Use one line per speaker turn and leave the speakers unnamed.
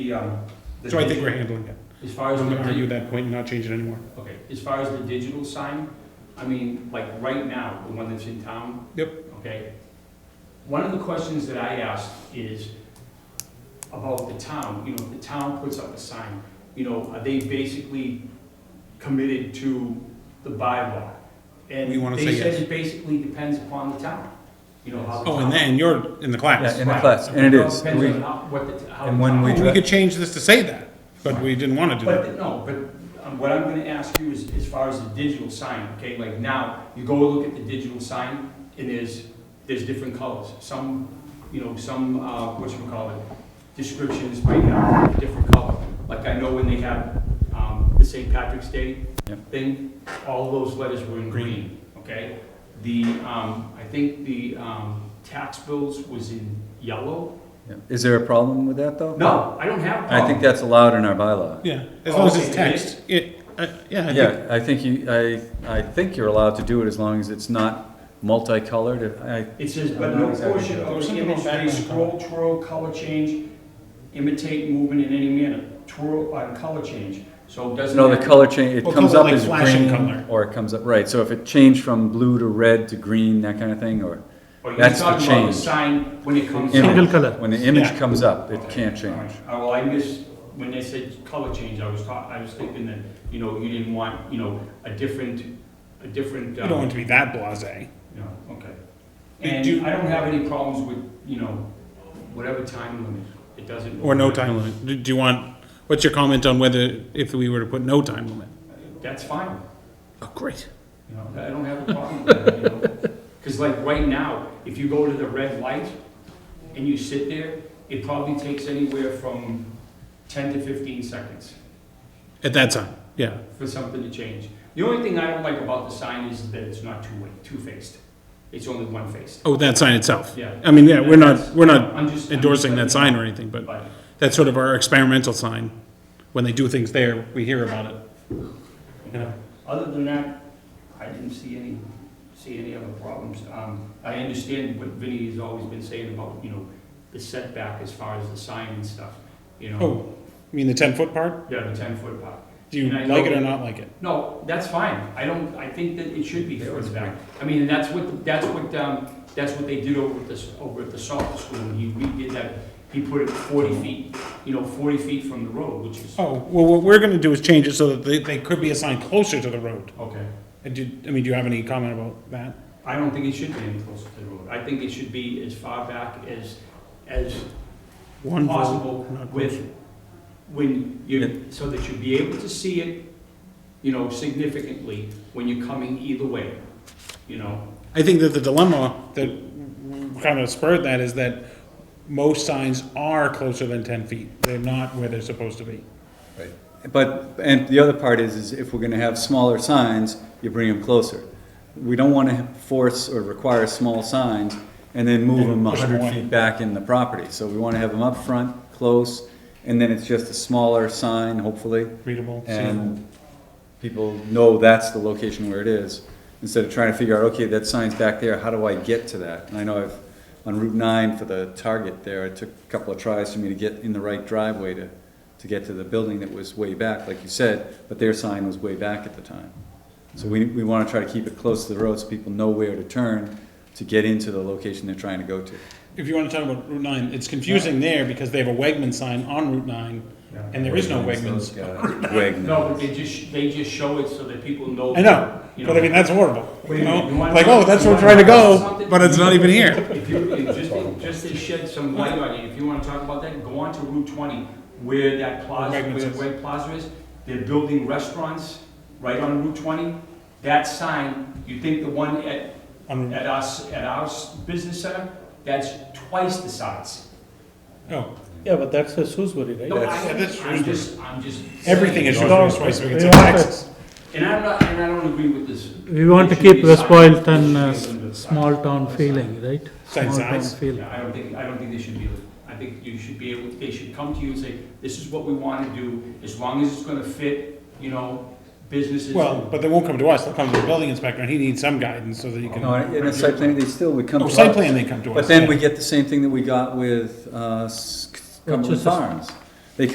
The, um, the
So I think
digi-
we're handling it.
As far
I'm
as the,
gonna argue
di-
that point and not change it anymore.
okay, as far as the digital sign, I mean, like right now, the one that's in town.
Yep.
Okay. One of the questions that I asked is about the town, you know, if the town puts up a sign, you know, are they basically committed to the bylaw?
We
And
wanna
they
say
said
yes.
it basically depends upon the town, you know, how. the
Oh, and
town-
then you're in the
Yeah,
class.
in the
Right.
class, and it
Well,
is.
Depends on
We-
how, what the, t- how.
and
the
when
town-
we
Well, We could change this to say that, but we didn't want to do that.
But, no, but um, what I'm gonna ask you is, as far as the digital sign, okay, like now, you go look at the digital sign, and there's, there's different colors, some, you know, some, uh, whatchamacallit, descriptions might have a different color. Like I know when they have, um, the St. Patrick's Day
Yep.
thing, all those letters were in green, okay? The, um, I think the, um, tax bills was in yellow.
yeah. Is there a problem with that, though?
No, I don't have. a
I think
problem.
that's allowed in our bylaw.
Yeah, as long as
Okay.
it's text. It, uh, yeah, I think,
Yeah, I think you, I, I think you're allowed to do it as long as it's not multicolored. I,
It says,
I'm
but
not
no
exactly
portion
sure.
of
There's
the
something
image
about
may
background
scroll, twirl, color change, imitate movement in any manner, twirl, uh, color change, so it doesn't.
no, the
have-
color change,
Well,
it comes
color
up
like
as
flashing
green,
color.
or it comes up, right, so if it changed from blue to red to green, that kind of thing, or
Or you're
that's the
talking about the
change.
sign when it comes.
Image.
out.
When the image
Yeah.
comes up, it
Okay,
can't
all right.
change.
Uh, well, I missed, when they said color change, I was taught, I was thinking that, you know, you didn't want, you know, a different, a different.
you don't want it to be that blasé.
No, okay.
They
And
do-
I don't have any problems with, you know, whatever time limit, it doesn't.
Or no time limit. Do- Do you want, what's your comment on whether, if we were to put no time limit?
That's fine.
Oh, great.
You know, I don't have a problem with that, you know? Because like right now, if you go to the red light and you sit there, it probably takes anywhere from ten to fifteen seconds
At that time, yeah.
for something to change. The only thing I don't like about the sign is that it's not two-way, two-faced. It's only one-faced.
Oh, that sign itself.
Yeah.
I mean, yeah, we're not, we're not
I'm just- I'm just
endorsing that
letting
sign
you
or anything,
know,
but
but-
that's sort of our experimental sign. When they do things there, we hear about it. You know?
Other than that, I didn't see any, see any other problems. Um, I understand what Vinnie has always been saying about, you know, the setback as far as the sign and stuff, you know?
Oh, you mean the ten-foot part?
Yeah, the ten-foot part.
Do you
And I
like
know-
it or not like it?
No, that's fine. I don't, I think that it should be further back. I mean, that's what, that's what, um, that's what they did over at the, over at the soccer school. When he redid that, he put it forty feet, you know, forty feet from the road, which is,
Oh, well, what we're gonna do is change it so that they, they could be assigned closer to the road.
okay.
And did, I mean, do you have any comment about that?
I don't think it should be any closer to the road. I think it should be as far back as, as
One vote,
possible
not
with,
closer.
when you, so that you'd be able to see it, you know, significantly when you're coming either way, you know?
I think that the dilemma that kind of spurred that is that most signs are closer than ten feet. They're not where they're supposed to be.
But, and the other part is, is if we're gonna have smaller signs, you bring them closer. We don't wanna force or require small signs and then move them a
Push 'em
hundred
away.
feet back in the property. So we wanna have them up front, close, and then it's just a smaller sign, hopefully.
Readable, seeable.
And people know that's the location where it is, instead of trying to figure out, okay, that sign's back there, how do I get to that? And I know I've, on Route nine for the Target there, it took a couple of tries for me to get in the right driveway to, to get to the building that was way back, like you said, but their sign was way back at the time. So we, we wanna try to keep it close to the road so people know where to turn to get into the location they're trying to go to.
If you wanna talk about Route nine, it's confusing there because they have a Wegman sign on Route nine, and there is no
Those
Wegmans.
guys, Wegmans.
No, but they just, they just show it so that people know.
I know,
you
but I mean, that's horrible,
What do
you
you
know?
mean? You want
Like,
something-
oh, that's
you
where I'm
want
trying to go,
something-
but it's not even here.
If you, if just, just to shed some light on it, if you wanna talk about that, go on to Route twenty, where that plaza,
Wegmans
where
is.
Wegg Plaza is, they're building restaurants right on Route twenty. That sign, you think the one at,
On-
at us, at our s- business center, that's twice the size.
Oh,
Yeah, but that's a Shrewsbury, right?
No, I,
That's- that's
I'm just, I'm just.
everything is
saying.
No.
Shrewsbury Spice, we can
We
say
want to-
Texas.
And I'm not, and I don't agree with this.
We want to
It should
keep
be
West
signed.
Boylston
It
uh,
should be a
small town
signed.
feeling, right?
Same
Small town
size.
feeling.
Yeah, I don't think, I don't think they should be, I think you should be able, they should come to you and say, this is what we want to do, as long as it's gonna fit, you know, businesses.
Well, but they won't come to us, they'll come to the building inspector, and he needs some guidance so that he can,
No, in a site plan, they still would come to
oh,
us.
site plan, they come to us.
But then
yeah.
we get the same thing that we got with uh, s- Cumberland
Rochester.
Farms.